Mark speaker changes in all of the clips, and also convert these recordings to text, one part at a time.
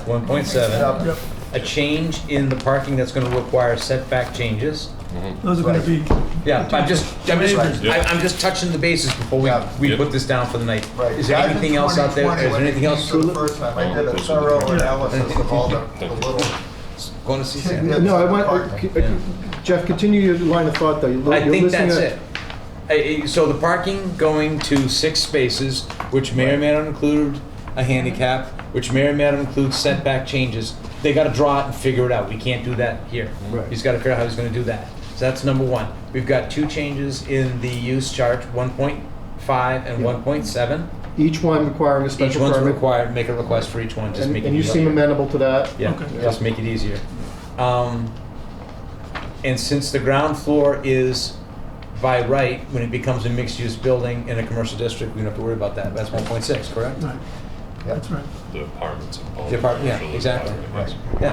Speaker 1: One point seven,
Speaker 2: Yep,
Speaker 1: a change in the parking that's gonna require setback changes.
Speaker 2: those are gonna be,
Speaker 1: Yeah, but I'm just, I'm just,
Speaker 3: Yeah.
Speaker 1: I- I'm just touching the bases before we,
Speaker 4: Yeah.
Speaker 1: we
Speaker 3: Yep.
Speaker 1: put this down for the night.
Speaker 4: Right.
Speaker 1: Is there
Speaker 4: Back in
Speaker 1: anything else out there? Is
Speaker 4: 2020,
Speaker 1: there
Speaker 4: when
Speaker 1: anything
Speaker 4: it
Speaker 1: else,
Speaker 4: came to the
Speaker 1: Tulip?
Speaker 4: First time, I did
Speaker 3: Oh,
Speaker 4: a
Speaker 3: this is-
Speaker 4: thorough
Speaker 3: Yeah.
Speaker 4: analysis of all the, the little
Speaker 1: Going to see Sam?
Speaker 4: tidbits.
Speaker 5: No, I
Speaker 4: of
Speaker 5: want,
Speaker 4: parking.
Speaker 5: uh, Jeff, continue your line of thought, though. You're-
Speaker 1: I
Speaker 5: you're
Speaker 1: think
Speaker 5: listing
Speaker 1: that's
Speaker 5: a-
Speaker 1: it. I- I- So the parking going to six spaces, which may or may not include a handicap, which may or may not include setback changes, they gotta draw it and figure it out. We can't do that here.
Speaker 5: Right.
Speaker 1: He's gotta figure out how he's gonna do that. So that's number one. We've got two changes in the use chart, one point five and
Speaker 5: Yeah.
Speaker 1: one point seven.
Speaker 5: Each one requiring a
Speaker 1: Each
Speaker 5: special
Speaker 1: one's
Speaker 5: permit.
Speaker 1: required, make a request for each one, just
Speaker 5: And
Speaker 1: make it
Speaker 5: and you
Speaker 1: easier.
Speaker 5: seem amenable to that.
Speaker 1: Yeah,
Speaker 2: Okay.
Speaker 1: just make it easier. Um, and since the ground floor is by right, when it becomes a mixed-use building in a commercial district, we don't have to worry about that. That's one point six, correct?
Speaker 2: right, that's right.
Speaker 3: The apartments and all
Speaker 1: The apart- yeah,
Speaker 3: commercial
Speaker 1: exactly.
Speaker 3: apartments.
Speaker 1: Yeah.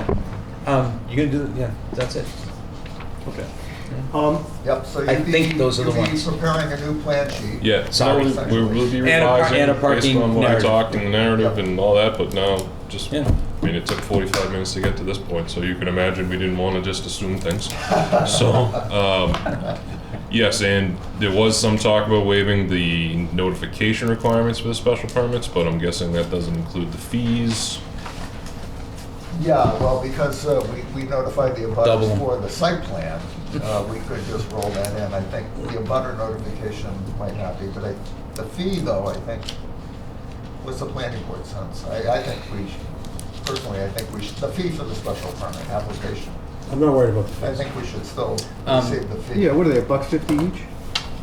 Speaker 1: Um, you're gonna do, yeah, that's it. Okay.
Speaker 5: Um,
Speaker 4: Yep, so
Speaker 1: I
Speaker 4: you'd be,
Speaker 1: think those are the
Speaker 4: you'd be
Speaker 1: ones.
Speaker 4: preparing a new plan sheet.
Speaker 3: Yeah,
Speaker 1: Sorry.
Speaker 3: no, we will be
Speaker 1: And a par-
Speaker 3: revising
Speaker 1: and a
Speaker 3: based
Speaker 1: parking
Speaker 3: on what I
Speaker 1: narrative.
Speaker 3: talked and the narrative and all that, but now, just,
Speaker 1: Yeah.
Speaker 3: I mean, it took forty-five minutes to get to this point, so you can imagine we didn't wanna just assume things. So, um, yes, and there was some talk about waiving the notification requirements for the special permits, but I'm guessing that doesn't include the fees.
Speaker 4: Yeah, well, because uh, we we notified the
Speaker 1: Double.
Speaker 4: abutters for the site plan, uh, we could just roll that in. I think the abutter notification might not be, but I- the fee, though, I think, was the planning board sense. I I think we, should- personally, I think we should, the fee for the special permit application,
Speaker 1: I'm not worried about the
Speaker 4: I think we should still
Speaker 1: Um,
Speaker 4: receive the fee.
Speaker 5: yeah, what are they, a buck fifty each?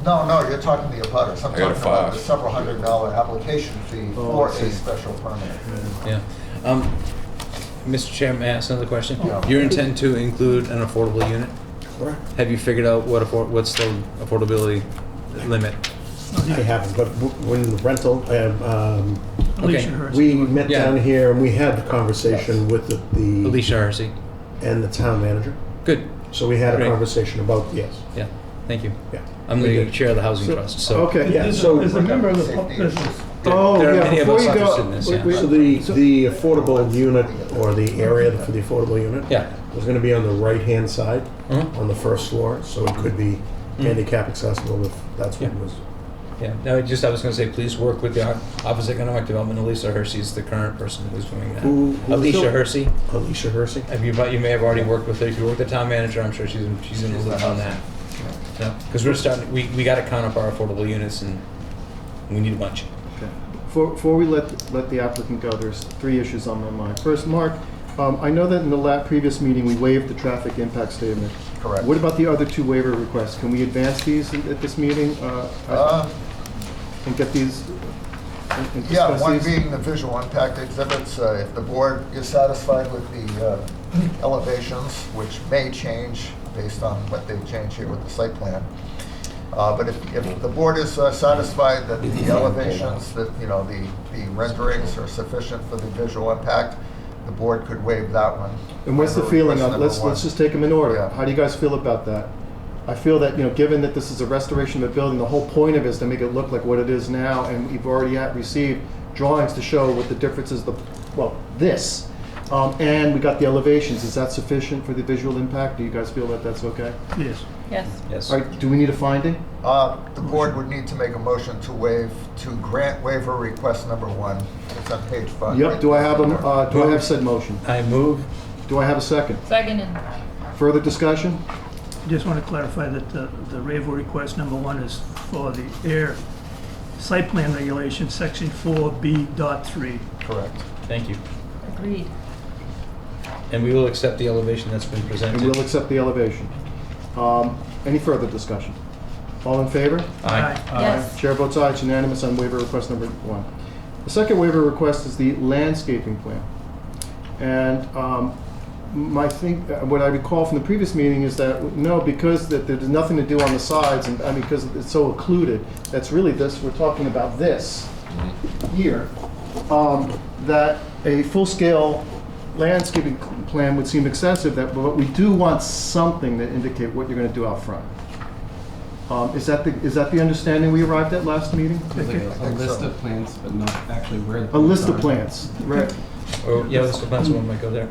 Speaker 4: No, no, you're talking the abutters. I'm
Speaker 3: I got a
Speaker 4: talking about
Speaker 3: five.
Speaker 4: the several hundred dollar application fee
Speaker 5: Oh, I
Speaker 4: for
Speaker 5: see. Mm-hmm.
Speaker 4: a special permit.
Speaker 1: Yeah. Um, Mr. Chair, may I ask another question?
Speaker 4: Yeah.
Speaker 1: Your intent to include an affordable unit?
Speaker 6: Correct.
Speaker 1: Have you figured out what afford, what's the affordability limit?
Speaker 6: I haven't, but w- when the rental, uh, um,
Speaker 2: Alicia
Speaker 1: Okay.
Speaker 2: Hurst.
Speaker 6: we met
Speaker 1: Yeah.
Speaker 6: down here and we had the conversation with the- the,
Speaker 1: Alicia Harsey.
Speaker 6: and the town manager.
Speaker 1: Good.
Speaker 6: So we had a
Speaker 1: Great.
Speaker 6: conversation about, yes,
Speaker 1: Yeah. Thank you.
Speaker 6: yeah.
Speaker 1: I'm
Speaker 6: We
Speaker 1: the
Speaker 6: did.
Speaker 1: chair of the housing trust, so.
Speaker 5: Okay.
Speaker 6: Yeah,
Speaker 2: As
Speaker 6: so-
Speaker 2: a- as a member of the, pub-
Speaker 4: Safety
Speaker 2: as
Speaker 4: issues.
Speaker 2: a-
Speaker 6: Oh,
Speaker 1: There are
Speaker 6: yeah,
Speaker 1: many of
Speaker 6: before
Speaker 1: us
Speaker 6: you go-
Speaker 1: interested in this, yeah.
Speaker 6: wait, wait, So the, the affordable unit or the area for the affordable unit?
Speaker 1: Yeah.
Speaker 6: Was gonna be on the right-hand side,
Speaker 1: Mhm.
Speaker 6: on the first floor, so it could be handicap accessible if that's what
Speaker 1: Mm. Yeah.
Speaker 6: was.
Speaker 1: Yeah, no, just, I was gonna say, please work with the Ar- Office of Economic Development, Alicia Hersey is the current person who's doing that.
Speaker 6: Who- who is
Speaker 1: Alicia
Speaker 6: it?
Speaker 1: Hersey,
Speaker 6: Alicia Hersey?
Speaker 1: have you, but you may have already worked with her, if you work with the town manager, I'm sure she's, in- she's in the loop on that. No, because we're starting, we, we gotta count up our affordable units and we need a bunch.
Speaker 5: Before, before we let, let the applicant go, there's three issues on my mind. First, Mark, um, I know that in the la, previous meeting, we waived the traffic impact statement.
Speaker 4: Correct.
Speaker 5: What about the other two waiver requests? Can we advance these at at this meeting, uh,
Speaker 4: Uh,
Speaker 5: and get these, and- and
Speaker 4: Yeah,
Speaker 5: discuss
Speaker 4: one
Speaker 5: these?
Speaker 4: being the visual impact exhibits, uh, if the board is satisfied with the uh, elevations, which may change based on what they change here with the site plan. Uh, But if, if the board is uh, satisfied that the elevations, that, you know, the, the renderings are sufficient for the visual impact, the board could waive that one.
Speaker 5: And what's the
Speaker 4: Waiver
Speaker 5: feeling
Speaker 4: request
Speaker 5: on, let's,
Speaker 4: number
Speaker 5: let's
Speaker 4: one.
Speaker 5: just take them in order.
Speaker 4: Yeah.
Speaker 5: How do you guys feel about that? I feel that, you know, given that this is a restoration of a building, the whole point of it is to make it look like what it is now, and we've already had, received drawings to show what the difference is, the, well, this. Um, and we got the elevations, is that sufficient for the visual impact? Do you guys feel that that's okay?
Speaker 2: Yes,
Speaker 7: Yes.
Speaker 1: Yes.
Speaker 5: All right, do we need a finding?
Speaker 4: Uh, The board would need to make a motion to waive, to grant waiver request number one. It's on page five.
Speaker 5: Yep, do I have a, uh, do I have said motion?
Speaker 1: I move,
Speaker 5: Do I have a second?
Speaker 7: Second and
Speaker 5: Further discussion?
Speaker 2: just want to clarify that the, the waiver request number one is for the air site plan regulation, section four B dot three.
Speaker 4: Correct.
Speaker 1: thank you,
Speaker 7: agreed.
Speaker 1: and we will accept the elevation that's been
Speaker 5: And we'll
Speaker 1: presented.
Speaker 5: accept the elevation. Um, Any further discussion? All in favor?
Speaker 1: Aye.
Speaker 7: Yes.
Speaker 5: Chair votes aye, it's unanimous on waiver request number one. The second waiver request is the landscaping plan. And um, my thing, uh, what I recall from the previous meeting is that, no, because that there's nothing to do on the sides, and, I mean, because it's so occluded, that's really this, we're talking about this here, um, that a full-scale landscaping plan would seem excessive, that, but we do want something to indicate what you're gonna do out front. Um, Is that the, is that the understanding we arrived at last meeting?
Speaker 2: Okay.
Speaker 8: Like a, a list of plants, but not actually where the
Speaker 5: A
Speaker 8: plants
Speaker 5: list of
Speaker 8: are.
Speaker 5: plants, right.
Speaker 1: Or, yeah, Oh, let's go, that's one might go there.